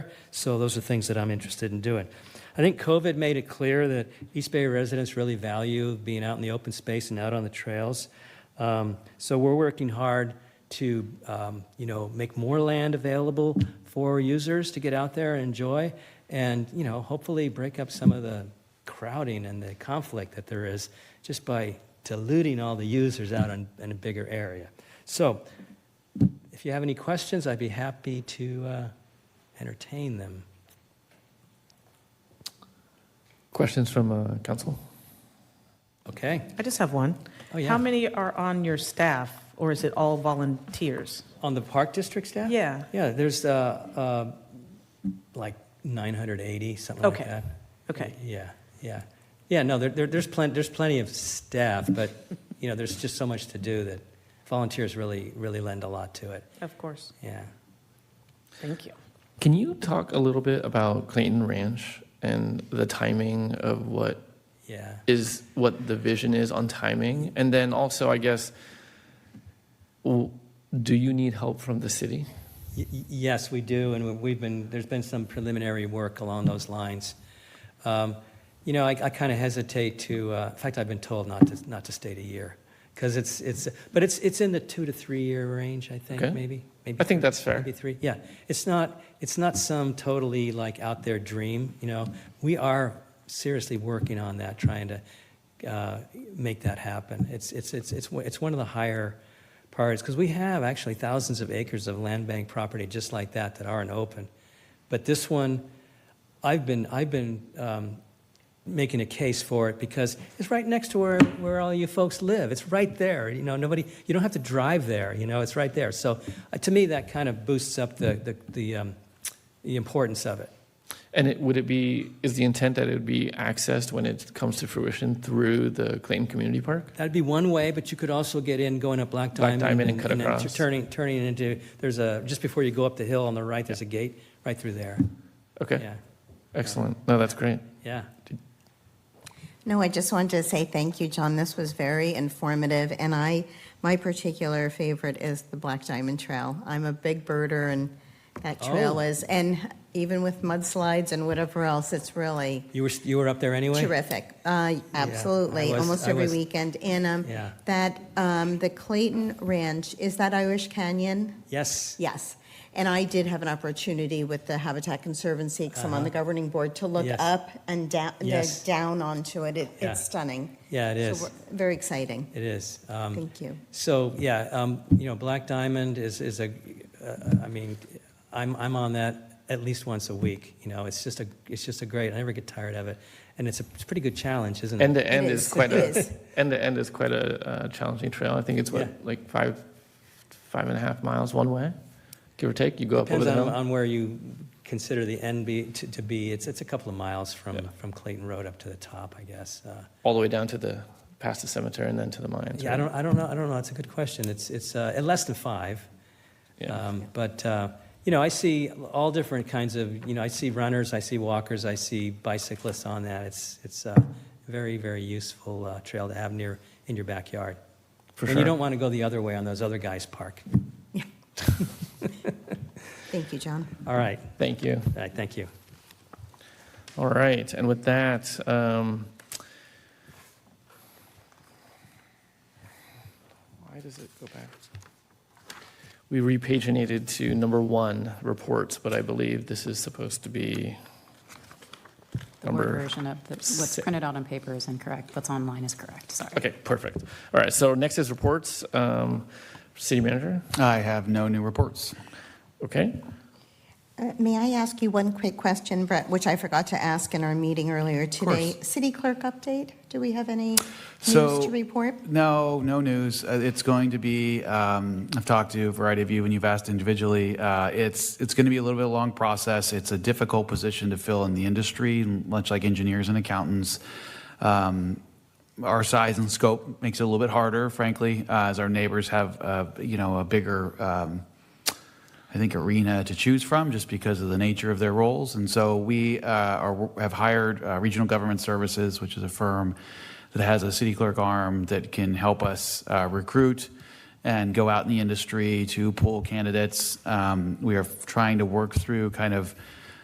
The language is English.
So those are things that I'm interested in doing. I think COVID made it clear that East Bay residents really value being out in the open space and out on the trails. Um, So we're working hard to, um, you know, make more land available for users to get out there and enjoy, and, you know, hopefully break up some of the crowding and the conflict that there is just by diluting all the users out in, in a bigger area. So if you have any questions, I'd be happy to uh, entertain them. Questions from uh, council? Okay? I just have one. Oh, yeah. How many are on your staff, or is it all volunteers? On the Park District staff? Yeah. Yeah, there's uh, uh, like 980, something like Okay. that. Okay. Yeah, yeah. Yeah, no, there, there- there's plenty, there's plenty of staff, but, you know, there's just so much to do that volunteers really, really lend a lot to it. Of course. Yeah. Thank you. Can you talk a little bit about Clayton Ranch and the timing of what Yeah. is what the vision is on timing? And then also, I guess, w- do you need help from the city? Y- y- Yes, we do, and we've been, there's been some preliminary work along those lines. Um, You know, I kind of hesitate to, uh, in fact, I've been told not to, not to state a year, because it's, it's, but it's, it's in the two to three-year range, I think, Okay. maybe? maybe I think three- that's fair. Maybe three, yeah. It's not, it's not some totally like out there dream, you know? We are seriously working on that, trying to uh, make that happen. It's, it's, it's, it's one- it's one of the higher parts, because we have actually thousands of acres of land bank property just like that that aren't open. But this one, I've been, I've been um, making a case for it because it's right next to where, where all you folks live. It's right there. You know, nobody, you don't have to drive there, you know, it's right there. So uh, to me, that kind of boosts up the, the, the, um, the importance of it. And it, would it be, is the intent that it would be accessed when it comes to fruition through the Clayton Community Park? That'd be one way, but you could also get in going up Black Black Diamond. Diamond and cut then across. Turning, turning it into, there's a, just before you go up the hill on the right, there's a gate right through there. Okay, Yeah, excellent. No, that's great. yeah. No, I just wanted to say thank you, John. This was very informative, and I, my particular favorite is the Black Diamond Trail. I'm a big birder, and that trail Oh. is, and even with mudslides and whatever else, it's really You were, you were up there anyway? terrific. Uh, Absolutely, I was- almost I every was- weekend. And um, Yeah. that, um, the Clayton Ranch, is that Irish Canyon? Yes. Yes. And I did have an opportunity with the Habitat Conservancy, because I'm on the governing board, to look Uh-huh. Yes. up and down, the Yes. down onto it. It- Yeah. It's stunning. Yeah, it So is. we're- Very exciting. It is. Um, Thank you. So, yeah, um, you know, Black Diamond is, is a, uh, I mean, I'm, I'm on that at least once a week, you know, it's just a, it's just a great, I never get tired of it, and it's a, it's a pretty good challenge, isn't it? End to end It is is. quite It a, is. end to end is quite a uh, challenging trail. I think it's Yeah. what, like five, five and a half miles one way, give or take? You go up Depends over the on, hill? on where you consider the end be, to, to be, it's, it's a couple of miles from, Yeah. from Clayton Road up to the top, I guess. Uh, All the way down to the, past the cemetery and then to the mines. Yeah, I right? don't, I don't know, I don't know, it's a good question, it's, it's, uh, less than five. Yeah. Um, But, uh, you know, I see all different kinds of, you know, I see runners, I see walkers, I see bicyclists on that. It's, it's a very, very useful uh, trail to have near, in your backyard. For And you sure. don't want to go the other way on those other guys' park. Thank you, John. All right, Thank you. all right, thank you. All right, and with that, um, why does it go back? We repaginated to number one, reports, but I believe this is supposed to be The word Number version of the- what's si- printed out on paper is incorrect. What's online is correct, sorry. Okay, perfect. All right, so next is reports. Um, City manager, I have no new reports. okay? Uh, May I ask you one quick question, Brett, which I forgot to ask in our meeting earlier today? City clerk update? Do we have any news So- to report? No, no news. Uh, It's going to be, um, I've talked to a variety of you and you've asked individually. Uh, It's, it's going to be a little bit of a long process. It's a difficult position to fill in the industry, much like engineers and accountants. Um, Our size and scope makes it a little bit harder, frankly, uh, as our neighbors have, uh, you know, a bigger um, I think, arena to choose from just because of the nature of their roles. And so we uh, are, have hired uh, Regional Government Services, which is a firm that has a city clerk arm that can help us uh, recruit and go out in the industry to pull candidates. Um, we are trying to work through kind of